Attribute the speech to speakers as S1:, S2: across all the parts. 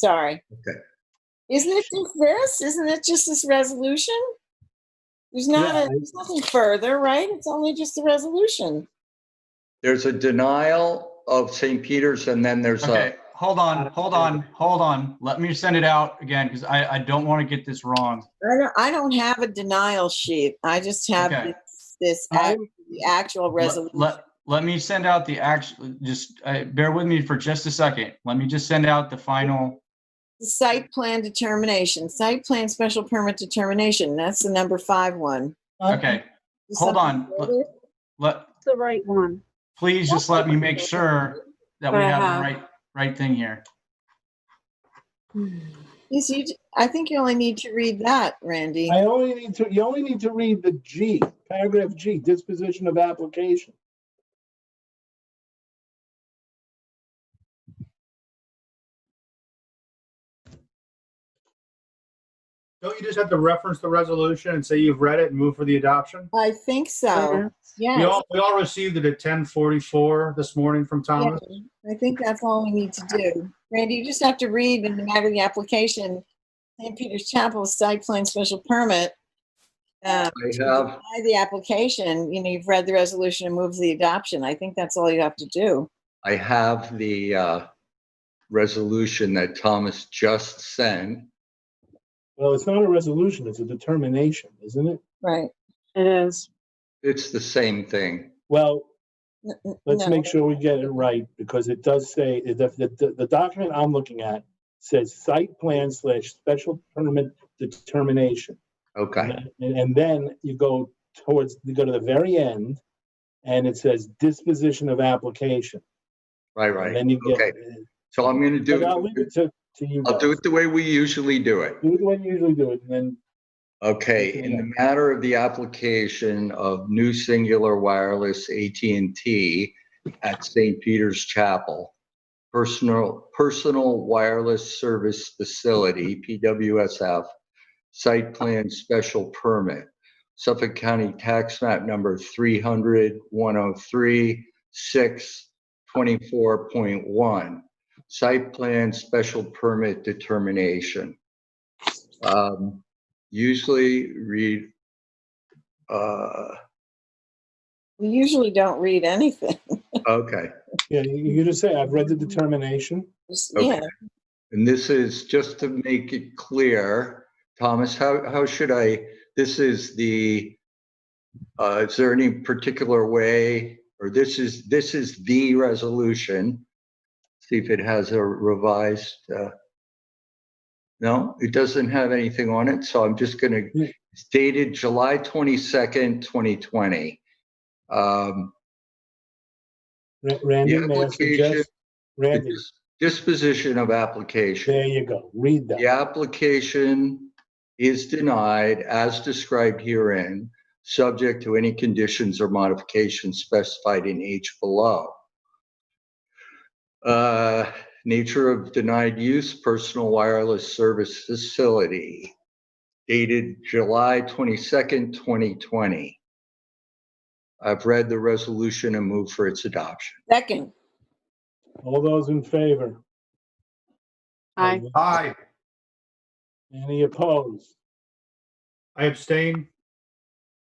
S1: Sorry.
S2: Okay.
S1: Isn't it just this? Isn't it just this resolution? There's not,
S2: Yeah,
S1: a- there's nothing further, right? It's only just the resolution.
S2: There's a denial of St. Peter's and then there's
S3: Okay,
S2: a,
S3: hold on, hold on, hold on. Let me send it out again because I, I don't want to get this wrong.
S1: I don't, I don't have a denial sheet. I just have
S3: Okay.
S1: this- this,
S3: I-
S1: act- the actual
S3: Let,
S1: resolution.
S3: let, Uh, let me send out the actual, just uh, bear with me for just a second. Let me just send out the final.
S1: The Site plan determination, site plan special permit determination. That's the number five one.
S3: Okay,
S1: Is
S3: Hold
S1: something
S3: on.
S1: further?
S3: let,
S4: the right one.
S3: please just let me make sure that we have
S4: Uh-huh.
S3: the right, right thing here.
S1: Yes, you, j- I think you only need to read that, Randy.
S5: I only need to, you only need to read the G, paragraph G, disposition of application.
S6: Don't you just have to reference the resolution and say you've read it and move for the adoption?
S1: I think so.
S6: We
S1: Yes.
S6: all, we all received it at ten forty-four this morning from Thomas.
S1: I think that's all we need to do. Randy, you just have to read in the matter of the application, St. Peter's Chapel site plan special permit. Uh,
S2: I have,
S1: by the application, you know, you've read the resolution and move the adoption. I think that's all you have to do.
S2: I have the, uh, resolution that Thomas just sent.
S5: Well, it's not a resolution, it's a determination, isn't it?
S1: Right.
S4: It is.
S2: It's the same thing.
S5: Well,
S1: N- n-
S5: let's
S1: no.
S5: make sure we get it right, because it does say, the, the, the document I'm looking at says site plan slash special permit determination.
S2: Okay,
S5: And, and then you go towards, you go to the very end, and it says disposition of application.
S2: right,
S5: And
S2: right.
S5: then you
S2: Okay,
S5: get,
S2: so I'm gonna
S5: But I'll leave
S2: do,
S5: it to, to you
S2: I'll
S5: guys.
S2: do it the way we usually do it.
S5: Do it when you usually do it, and then
S2: Okay, in the matter of the application of new singular wireless AT&T at St. Peter's Chapel, personal, personal wireless service facility, PWSF, site plan special permit, Suffolk County Tax Map Number 300 6 24.1, site plan special permit determination. Um, usually read, uh,
S1: We usually don't read anything.
S2: okay.
S5: Yeah, you you just say, I've read the determination.
S1: Just-
S2: Okay.
S1: Yeah,
S2: And this is, just to make it clear, Thomas, how, how should I, this is the, uh, is there any particular way, or this is, this is the resolution? See if it has a revised, uh, no, it doesn't have anything on it, so I'm just gonna,
S5: Yeah.
S2: it's dated July twenty-second, twenty twenty. Um,
S5: Ra-
S2: the
S5: Randy, may I
S2: application,
S5: suggest? Randy,
S2: disposition of application.
S5: there you go, read that.
S2: The application is denied as described herein, subject to any conditions or modifications specified in H below. Uh, Nature of denied use, personal wireless service facility, dated July 22nd, 2020. I've read the resolution and move for its adoption.
S1: second.
S5: All those in favor?
S4: Aye.
S6: Aye.
S5: Any opposed?
S6: I abstain.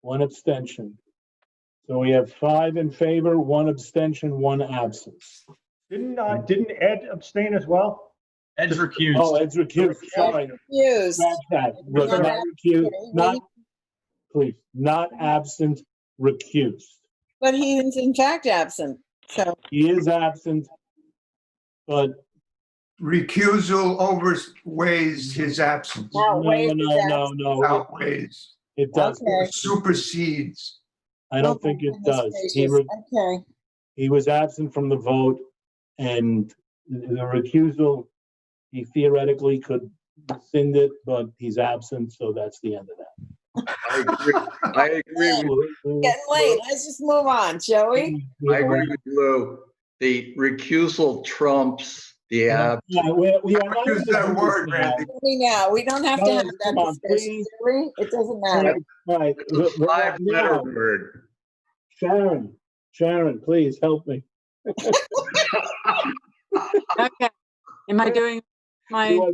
S5: One abstention. So we have five in favor, one abstention, one absence.
S7: Didn't, uh, didn't Ed abstain as well?
S3: Ed's
S5: Oh,
S3: recused.
S5: Ed's recused, sorry.
S1: Used.
S5: Scratch that. Was not recused, not, please, not absent, recused.
S1: But he is in fact absent. So
S5: He is absent, but
S8: recusal overweighs his absence,
S5: no,
S1: Outweighs
S5: no,
S1: his
S5: no, no, it-
S8: outweighs,
S5: it doesn't.
S1: Okay.
S8: supersedes.
S5: I don't think it does. He re-
S1: Okay,
S5: he was absent from the vote and the recusal, he theoretically could rescind it, but he's absent, so that's the end of that.
S2: I agree I agree with
S1: getting late. Let's just move on, shall
S5: Mm-hmm.
S1: we?
S2: I agree with Lou. The recusal trumps the
S5: Yeah,
S2: ab.
S5: we we are not.
S8: Use that word, Randy.
S1: We now, we don't have to have
S5: Guys, Oh, come
S1: that
S5: on,
S1: discussion,
S5: please.
S1: do we? It doesn't matter.
S5: Right,
S2: It's a five-letter word.
S5: Sharon, Sharon, please help me.
S4: Okay. Am I doing my